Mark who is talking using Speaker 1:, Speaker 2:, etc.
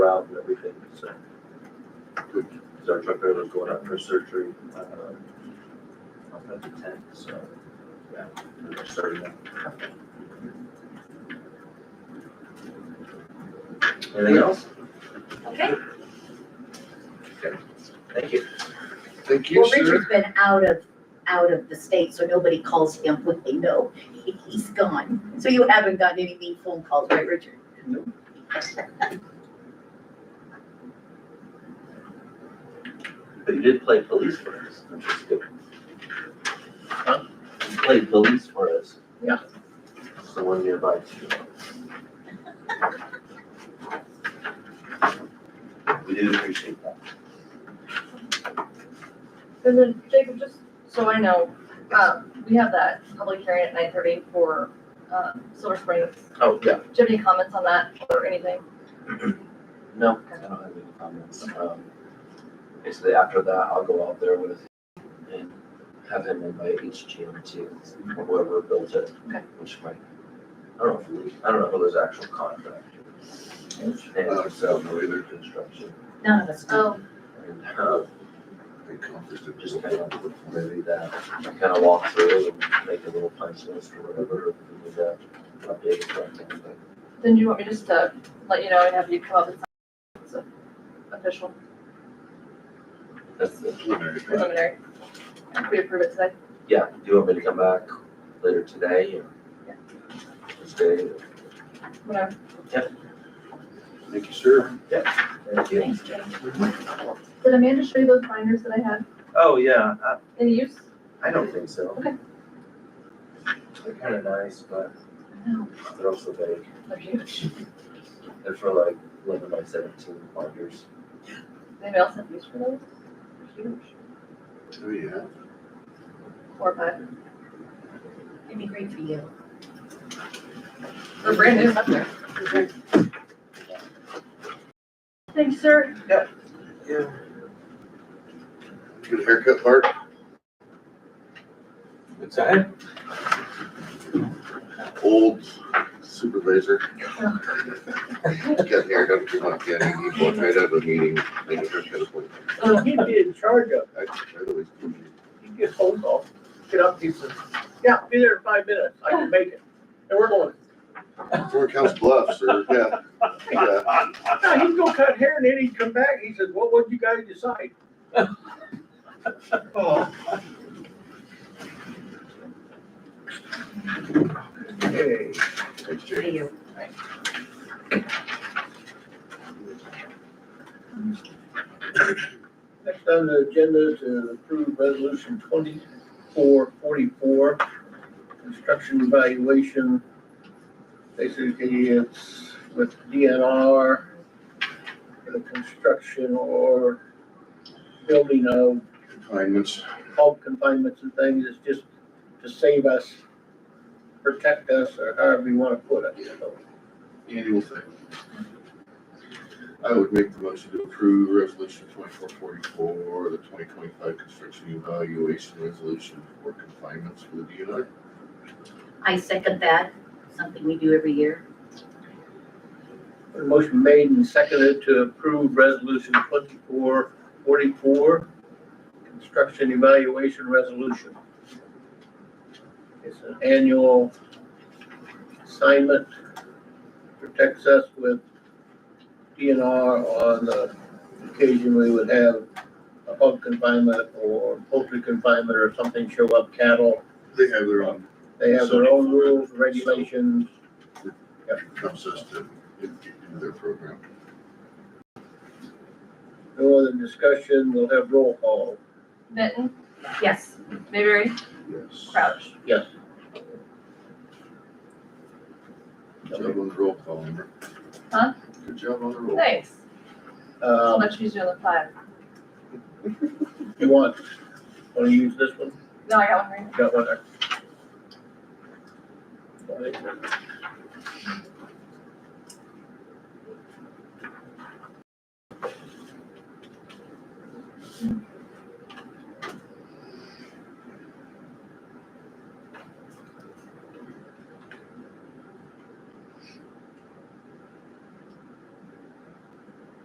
Speaker 1: out and everything, so. Cause our truck driver's going out for surgery, uh, on the tenth, so, yeah, we're starting that. Anything else?
Speaker 2: Okay,
Speaker 1: Thank you.
Speaker 3: Thank you,
Speaker 2: well,
Speaker 3: sir.
Speaker 2: Richard's been out of, out of the state, so nobody calls him when they know he's gone. So you haven't gotten any mean phone calls, right, Richard?
Speaker 1: But you did play police for us, which is good. You played police for us.
Speaker 2: Yeah.
Speaker 1: Someone nearby too. We did appreciate that.
Speaker 4: And then Jacob, just so I know, um, we have that public hearing at nine thirty for, uh, Silver Springs.
Speaker 1: Oh, yeah.
Speaker 4: Do you have any comments on that or anything?
Speaker 5: No, I don't have any comments. Um, Basically, after that, I'll go out there with and have him invite each GM to whoever built it.
Speaker 4: Okay.
Speaker 5: Which might, I don't know if we, I don't know who there's actual contract.
Speaker 3: Uh,
Speaker 5: And
Speaker 3: so,
Speaker 5: so,
Speaker 3: no either.
Speaker 5: construction.
Speaker 2: None of us do.
Speaker 4: Oh,
Speaker 5: And uh,
Speaker 3: They conflicted with
Speaker 5: just
Speaker 3: the
Speaker 5: kind of maybe that, kind of walk through and make a little punch list or whatever, if we need to update it or anything, but
Speaker 4: then you want me just to let you know and have you come up with something that's official,
Speaker 5: that's the
Speaker 3: preliminary plan.
Speaker 4: preliminary? If we approve it today?
Speaker 5: Yeah, do you want me to come back later today or?
Speaker 4: Yeah.
Speaker 5: Tuesday or?
Speaker 4: Whatever.
Speaker 3: Thank you, sir.
Speaker 5: Thank you.
Speaker 4: Thanks, Jacob. Did Amanda show you those binders that I had?
Speaker 1: Oh, yeah, I,
Speaker 4: Any use?
Speaker 1: I don't think so.
Speaker 4: Okay.
Speaker 1: They're kind of nice, but
Speaker 4: No.
Speaker 1: they're also big.
Speaker 4: They're huge.
Speaker 1: They're for like eleven by seventeen markers.
Speaker 4: Anybody else have use for those? They're Huge.
Speaker 3: Oh, yeah.
Speaker 4: Four or five.
Speaker 2: It'd be great for you.
Speaker 4: They're brand new, up there. Thanks, sir.
Speaker 1: Yeah.
Speaker 3: Good haircut, Bart.
Speaker 6: What's that?
Speaker 3: Old supervisor. Got hair done too much, yeah. He walked right out of a meeting, made a haircut appointment.
Speaker 7: he'd be in charge of,
Speaker 3: I, I always.
Speaker 7: he'd get phone calls, get up, he says, yeah, be there in five minutes, I can make it. And we're going,
Speaker 3: Four counts bluff, sir. Yeah. Yeah.
Speaker 7: no, he'd go cut hair and then he'd come back, he says, what would you guys decide? Oh. Hey.
Speaker 3: Thanks,
Speaker 2: For
Speaker 3: Jake.
Speaker 2: you.
Speaker 7: Next on the agenda is to approve resolution twenty-four forty-four, construction evaluation. Basically, it's with DNR for the construction or building of
Speaker 3: Confinements.
Speaker 7: bulk confinements and things, it's just to save us, protect us, or however you wanna put it, you know.
Speaker 3: Annual thing. I would make the motion to approve resolution twenty-four forty-four, the twenty twenty-five construction evaluation resolution for confinements for the DNR.
Speaker 2: I second that, something we do every year.
Speaker 7: A Motion made and seconded to approve resolution twenty-four forty-four, construction evaluation resolution. It's an annual assignment, protects us with DNR on the occasion we would have a hog confinement or poultry confinement or something show up cattle.
Speaker 3: They have their own
Speaker 7: They have their own rules, regulations,
Speaker 3: comes us to in- into their program.
Speaker 7: no other discussion, we'll have roll call.
Speaker 4: Benton,
Speaker 2: Yes.
Speaker 4: Mayberry,
Speaker 3: Yes.
Speaker 4: Crouch.
Speaker 7: Yes.
Speaker 3: Good job on the roll call, Amber.
Speaker 4: Huh?
Speaker 3: Good job on the roll.
Speaker 4: Thanks. So
Speaker 7: Um,
Speaker 4: much easier than five.
Speaker 7: You want, want to use this one?
Speaker 4: No, I got one right.
Speaker 7: Got one there. All right.